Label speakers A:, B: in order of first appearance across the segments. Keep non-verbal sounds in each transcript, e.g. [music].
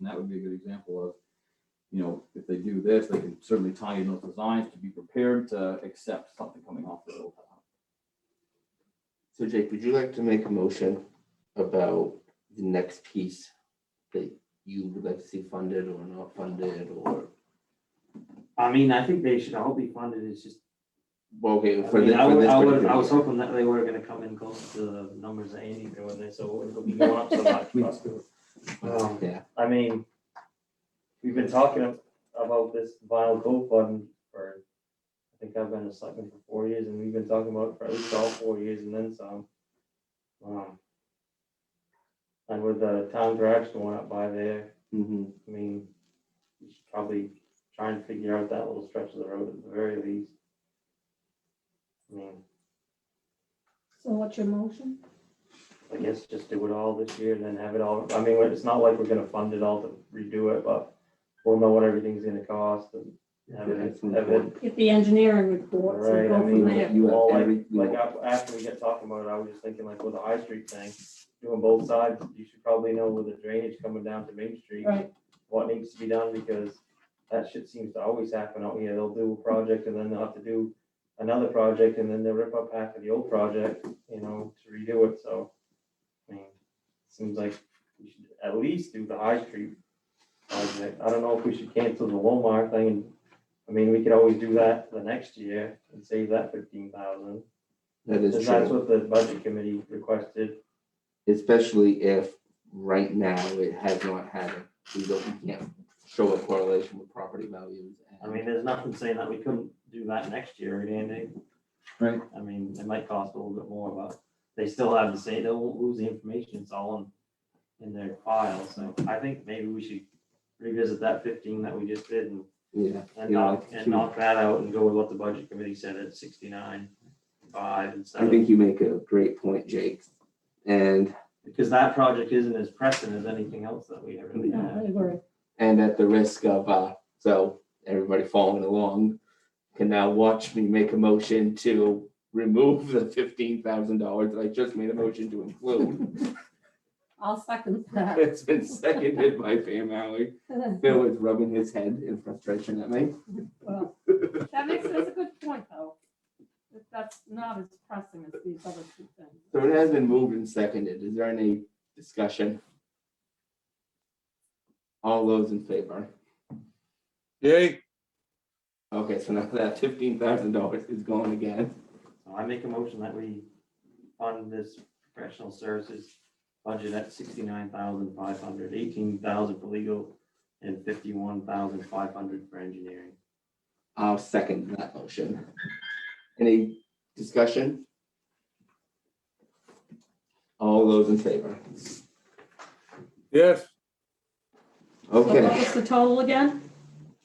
A: that would be a good example of, you know, if they do this, they can certainly tie in those designs to be prepared to accept something coming off the hilltop.
B: So Jake, would you like to make a motion about the next piece that you would like to see funded or not funded or?
C: I mean, I think they should all be funded, it's just,
B: Well, okay,
C: I
B: for
C: mean,
B: this,
C: I
B: for
C: would,
B: this
C: I would, I
B: particular
C: was
B: year.
C: hoping that they were gonna come in close to the numbers that Andy threw in there, so it'll be going up
B: [laughs]
C: so much. for us to- Um,
B: Yeah.
C: I mean, we've been talking ab- about this vinyl coat fund for, I think I've been a selectman for four years, and we've been talking about it for at least all four years and then some. Um, And with the town garage going up by there,
B: Mhm.
C: I mean, you should probably try and figure out that little stretch of the road at the very least. I mean,
D: So what's your motion?
C: I guess just do it all this year and then have it all, I mean, it's not like we're gonna fund it all to redo it, but we'll know what everything's gonna cost and have
B: Yeah,
C: it,
B: that's
C: have it.
D: Get the engineering reports
C: Right,
D: and
C: I
D: go from
C: mean,
D: there.
B: you have
C: well, like,
B: every- you
C: like af- after we get talking about it, I was just thinking like with the High Street thing, doing both sides, you should probably know with the drainage coming down to Main Street.
D: Right,
C: what needs to be done, because that shit seems to always happen out here. They'll do a project and then they'll have to do another project, and then they'll rip up half of the old project, you know, to redo it, so. I mean, seems like we should at least do the High Street project. I don't know if we should cancel the Walmart thing, and, I mean, we could always do that the next year and save that fifteen thousand.
B: That is
C: That's
B: true,
C: what the budget committee requested,
B: especially if right now it has not had, a- we don't, we can't show a correlation with property values.
C: I
B: and-
C: mean, there's nothing saying that we couldn't do that next year, right, Andy?
A: Right.
C: I mean, it might cost a little bit more, but they still have to say, they'll lose the information, it's all in, in their file, so I think maybe we should revisit that fifteen that we just did and,
B: Yeah.
C: and
B: you know, I
C: knock,
B: think
C: and
B: you-
C: knock that out and go with what the budget committee said at sixty-nine, five instead
B: I
C: of,
B: think you make a great point, Jake. And,
C: because that project isn't as pressing as anything else that we ever really
D: yeah,
C: had.
D: I agree.
B: and at the risk of, uh, so everybody following along can now watch me make a motion to remove the fifteen thousand dollars that I just made a motion to include.
D: I'll second
C: [laughs]
D: that.
B: It's been seconded by Pam Alley. Phil is rubbing his head in frustration at me.
D: Well, That makes, that's a good point, though. That That's not as pressing as these other two things.
B: So it has been moved and seconded. Is there any discussion? All those in favor?
E: Yay,
B: Okay, so now that fifteen thousand dollars is gone again.
C: So I make a motion that we fund this professional services budget at sixty-nine thousand five hundred, eighteen thousand for legal, and fifty-one thousand five hundred for engineering.
B: I'll second that motion. Any discussion? All those in favor?
E: yes,
D: So What
B: Okay,
D: was the total again?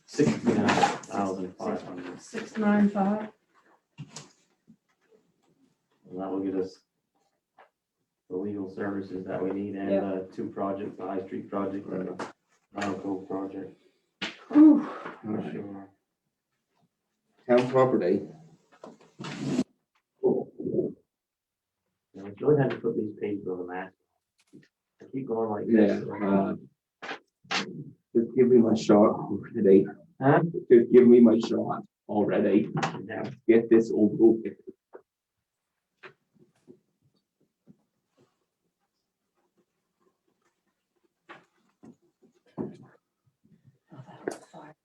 C: Sixty-nine thousand five hundred,
D: Six nine five?
C: and that will get us the legal services that we need and the two projects, the High Street project and the Round Cove project.
D: Ooh,
C: for sure.
B: town property.
C: And we really had to put these pages on the map. I keep going like
B: Yeah.
C: this.
B: uh, Just give me my shot already.
C: Huh?
B: Just give me my shot already.
C: Yeah.
B: Get this over with.
D: oh, that was fire.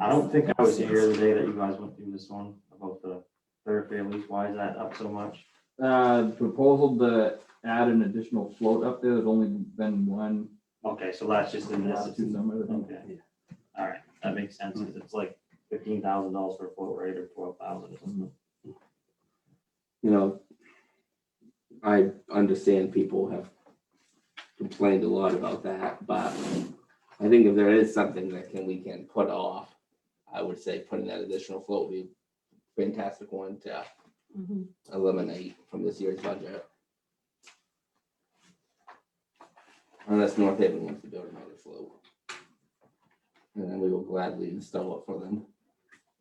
C: I don't think I was here the day that you guys went through this one about the thoroughfare lease. Why is that up so much?
A: Uh, proposal to add an additional float up there, there's only been one,
C: Okay, so that's just in this.
A: two somewhere. I think.
C: Okay. All right, that makes sense. 'cause It's like fifteen thousand dollars for a float rate or twelve thousand or something.
B: you know, I understand people have complained a lot about that, but I think if there is something that can, we can put off, I would say putting that additional float would be a fantastic one to
D: Mhm.
B: eliminate from this year's budget. Unless North Haven wants to build another float. And then we will gladly install it for them.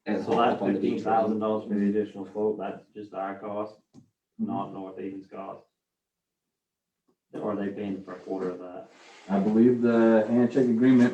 B: And
C: So
B: haul it
C: that
B: up on the
C: fifteen
B: beach.
C: thousand dollars for the additional float, that's just our cost, not North Haven's cost. or are they paying for a quarter of that?
A: I believe the handshake agreement